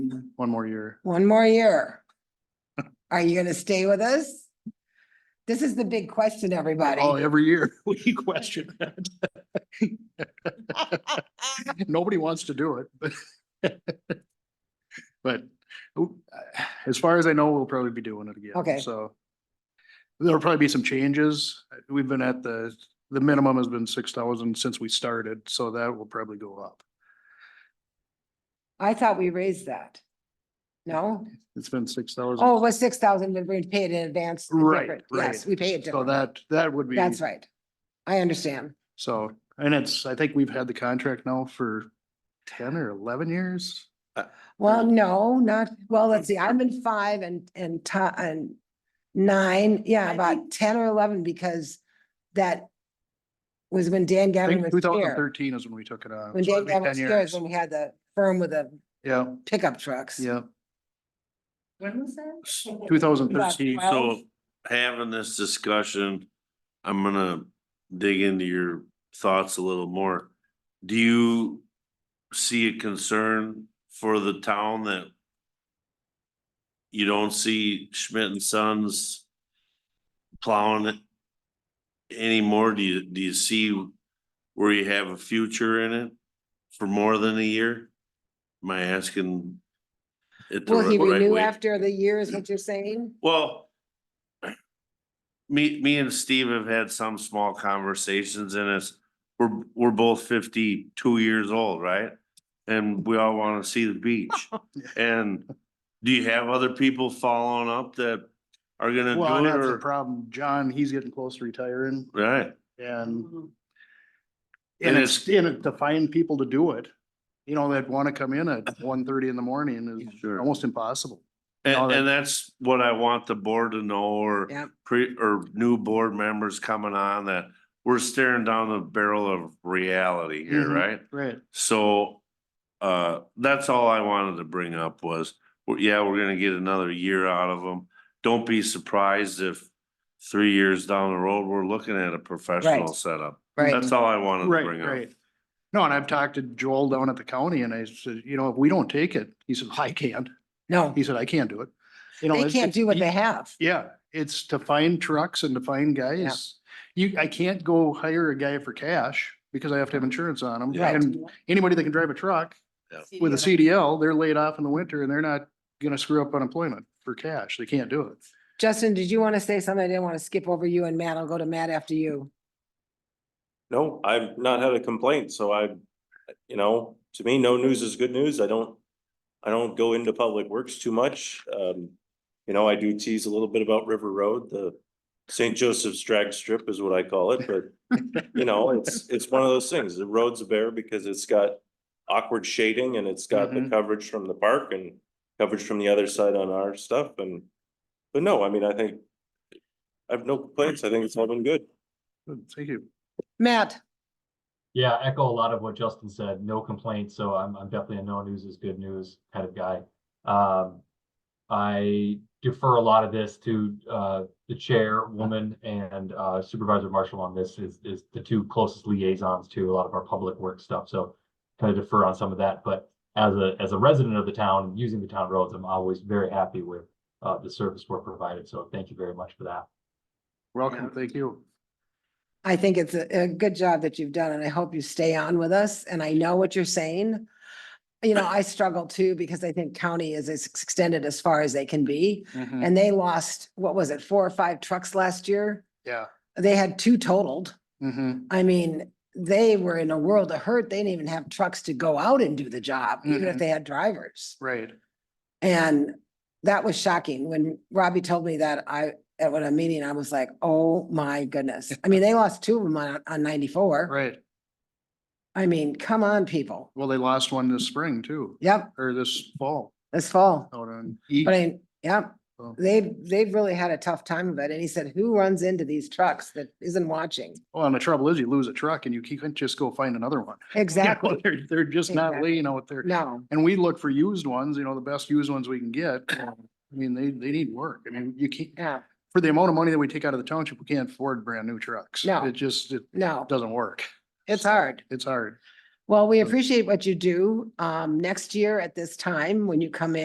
one more year. One more year. Are you gonna stay with us? This is the big question, everybody. Oh, every year we question that. Nobody wants to do it, but. But oop, uh, as far as I know, we'll probably be doing it again. Okay. So there'll probably be some changes. We've been at the, the minimum has been six thousand since we started, so that will probably go up. I thought we raised that. No? It's been six thousand. Oh, it was six thousand, but we paid in advance. the Right, difference. right. Yes, we paid it. So different. that, that would be. That's right. I understand. So, and it's, I think we've had the contract now for ten or eleven years. Well, no, not, well, let's see, I've been five and, and ti- and nine, yeah, I about think- ten or eleven because that was when Dan I Gavin think two was thousand here. thirteen is when we took it on. When so Dan it'd be 10 Gavin was here years. is when we had the firm with the Yeah, pickup trucks. yeah, When was that? two thousand About thirteen. Well- So having this discussion, I'm gonna dig into your thoughts a little more. Do you see a concern for the town that you don't see Schmidt and Sons plowing it anymore? Do you, do you see where you have a future in it for more than a year? Am I asking? it the Will he right renew way? after the year is what you're saying? Well. Me, me and Steve have had some small conversations and it's, we're, we're both fifty-two years old, right? And we all wanna see the beach. And do you have other people following up that are gonna Well, and do it that's the or? problem. John, he's getting close to retiring Right, and, Mhm. and And it's, and it- to find people to do it. You know, that want to come in at one thirty in the morning is sure. almost impossible. No, And, that- and that's what I want the board to know or Yep. pre, or new board members coming on that we're staring down the barrel of reality here, Mhm. right? Right. So, uh, that's all I wanted to bring up was, well, yeah, we're gonna get another year out of them. Don't be surprised if three years down the road, we're looking at a professional setup. Right, That's all I wanted to Right, bring up. right. No, and I've talked to Joel down at the county and I said, you know, if we don't take it, he said, I can't. no, He said, I can't do it. You know, they it's- can't it's- do what you- they have. Yeah, it's to find trucks and to find guys. You, I can't go hire a guy for cash because I have to have insurance on them. Right. And anybody that can drive a truck with a CDL, they're laid off in the winter and they're not gonna screw up unemployment for cash. They can't do it. Justin, did you want to say something? I didn't want to skip over you and Matt. I'll go to Matt after you. No, I've not had a complaint, so I, you know, to me, no news is good news. I don't, I don't go into public works too much. Um, you know, I do tease a little bit about River Road, the St. Joseph's drag strip is what I call it, but you know, it's, it's one of those things. The road's a bear because it's got awkward shading and it's got the Mhm. coverage from the park and coverage from the other side on our stuff and, but no, I mean, I think I have no complaints. I think it's all been good. Good, Thank you. Matt, Yeah, echo a lot of what Justin said. No complaints, so I'm I'm definitely a no news is good news kind of guy. Um, I defer a lot of this to uh, the chairwoman and uh, Supervisor Marshall on this is is the two closest liaisons to a lot of our public work stuff. So kind of defer on some of that, but as a as a resident of the town using the town roads, I'm always very happy with uh, the service we're provided. So thank you very much for that. Welcome. Thank you. I think it's a, a good job that you've done and I hope you stay on with us and I know what you're saying. You know, I struggle too because I think county is as extended as far as they can be Mm-hmm. and they lost, what was it, four or five trucks last year? Yeah. They had two totaled. Mhm. I mean, they were in a world of hurt. They didn't even have trucks to go out and do the job, even if Mhm. they had drivers. Right. And that was shocking. When Robbie told me that, I, at what a meeting, I was like, oh my goodness. I mean, they lost two of them on, on ninety-four. Right. I mean, come on, people. Well, they lost one this spring too, Yep, or this fall this fall. out on. E, But I, yep, Oh. they've, they've really had a tough time of it. And he said, who runs into these trucks that isn't watching? Well, and the trouble is you lose a truck and you can't just go find another one. You know, Exactly. They're, they're just not Exactly. laying out there. No, And we look for used ones, you know, the best used ones we can get. I mean, they, they need work. I mean, you can't, yeah, for the amount of money that we take out of the township, we can't afford brand new trucks. No. It just, it no, doesn't work. it's hard. It's hard. Well, we So- appreciate what you do. Um, next year at this time, when you come in.